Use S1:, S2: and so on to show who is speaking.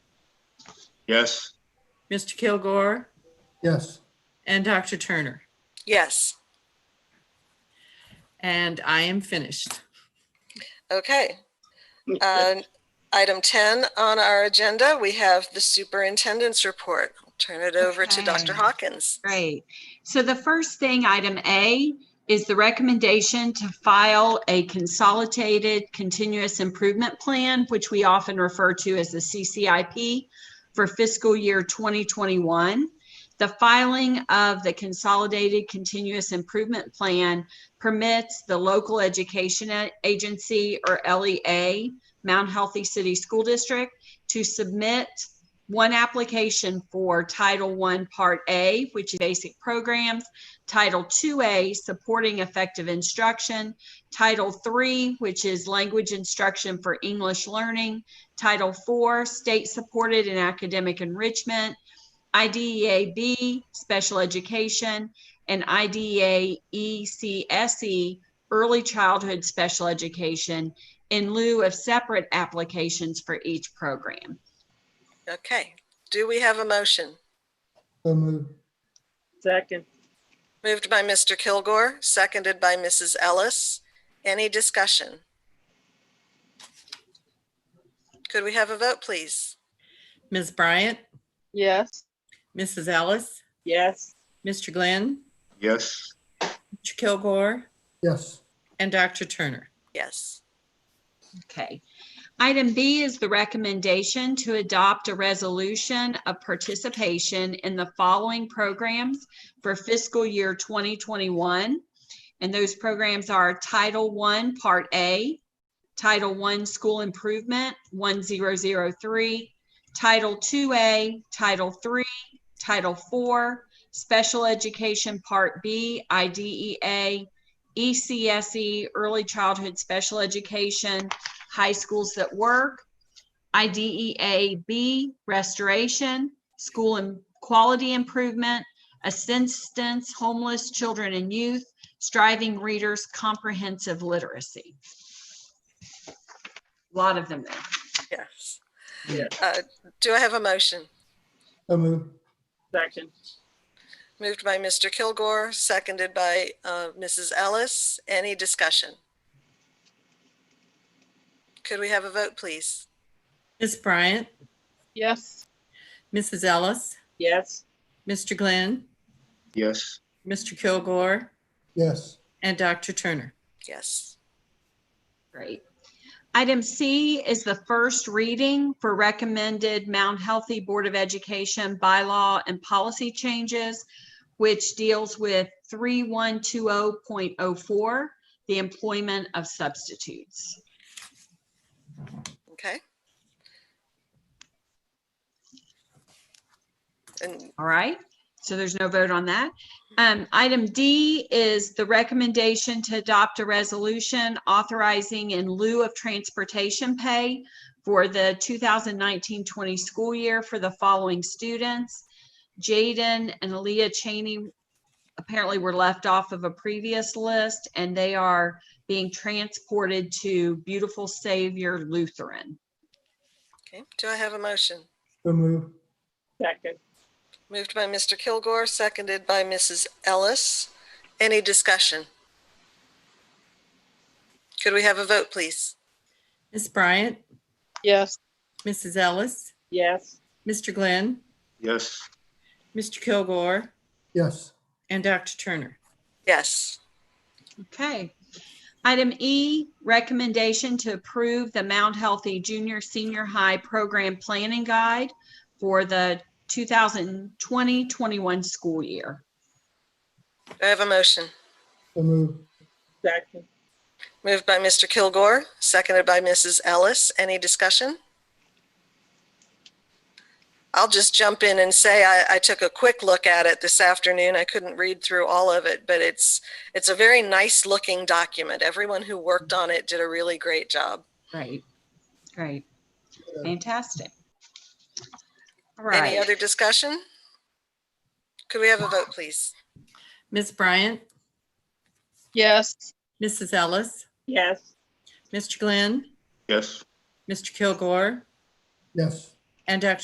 S1: Yes.
S2: Mr. Kilgore,
S3: yes,
S2: and Dr. Turner.
S4: Yes.
S2: And I am finished.
S4: Okay. Uh, Item 10 on our agenda, we have the superintendent's report. I'll Turn it over to Dr.
S5: Okay.
S4: Hawkins.
S5: Great. So the first thing, item A, is the recommendation to file a consolidated continuous improvement plan, which we often refer to as the CCIP for fiscal year 2021. The filing of the consolidated continuous improvement plan permits the local education A- agency or LEA, Mount Healthy City School District, to submit one application for Title I Part A, which is basic programs, Title IIA, supporting effective instruction, Title III, which is language instruction for English learning, Title IV, state supported and academic enrichment, IDEA B, special education, and E IDEA ECSE, E, early childhood special education, in lieu of separate applications for each program.
S4: Okay. Do we have a motion?
S3: so moved,
S6: second,
S4: Moved by Mr. Kilgore, seconded by Mrs. Ellis. Any discussion? Could we have a vote, please?
S2: Ms. Bryant,
S6: yes,
S2: Mrs. Ellis,
S6: yes,
S2: Mr. Glenn,
S1: yes,
S2: Mr. Kilgore,
S3: yes,
S2: and Dr. Turner.
S4: Yes.
S5: Okay. Item B is the recommendation to adopt a resolution of participation in the following programs for fiscal year 2021. And those programs are Title I, Part A, Title I, School Improvement 1003, Title IIA, Title III, Title IV, Special Education Part B, E IDEA, E ECSE, Early Childhood Special Education, High Schools That Work, IDEA B, Restoration, School and Quality Improvement, Assistance Homeless Children and Youth, Striving Readers Comprehensive Literacy. Lot of them there.
S4: Yes.
S6: Yes.
S4: Uh, Do I have a motion?
S3: so moved,
S6: second,
S4: Moved by Mr. Kilgore, seconded by uh, Mrs. Ellis. Any discussion? Could we have a vote, please?
S2: Ms. Bryant,
S6: yes,
S2: Mrs. Ellis,
S6: yes,
S2: Mr. Glenn,
S1: yes,
S2: Mr. Kilgore,
S3: yes,
S2: and Dr. Turner.
S4: Yes.
S5: Great. Item C is the first reading for recommended Mount Healthy Board of Education bylaw and policy changes, which deals with 3120.04, the employment of substitutes.
S4: Okay. And
S5: All right, so there's no vote on that. Um, item D is the recommendation to adopt a resolution authorizing in lieu of transportation pay for the 2019-20 school year for the following students. Jaden and Aaliyah Cheney apparently were left off of a previous list and they are being transported to Beautiful Savior Lutheran.
S4: okay, do I have a motion?
S3: so moved,
S6: second,
S4: Moved by Mr. Kilgore, seconded by Mrs. Ellis. Any discussion? Could we have a vote, please?
S2: Ms. Bryant,
S6: yes,
S2: Mrs. Ellis,
S6: yes,
S2: Mr. Glenn,
S1: yes,
S2: Mr. Kilgore,
S3: yes,
S2: and Dr. Turner.
S4: Yes.
S5: Okay. Item E, recommendation to approve the Mount Healthy Junior Senior High Program Planning Guide for the 2020-21 school year.
S4: Do I have a motion?
S3: so moved,
S6: second,
S4: Moved by Mr. Kilgore, seconded by Mrs. Ellis. Any discussion? I'll just jump in and say I, I took a quick look at it this afternoon. I couldn't read through all of it, but it's, it's a very nice looking document. Everyone who worked on it did a really great job.
S5: Great, great, fantastic. All
S4: Any
S5: right,
S4: other discussion? Could we have a vote, please?
S2: Ms. Bryant,
S6: yes,
S2: Mrs. Ellis,
S6: yes,
S2: Mr. Glenn,
S1: yes.
S2: Mr. Kilgore,
S3: yes.
S2: and Dr.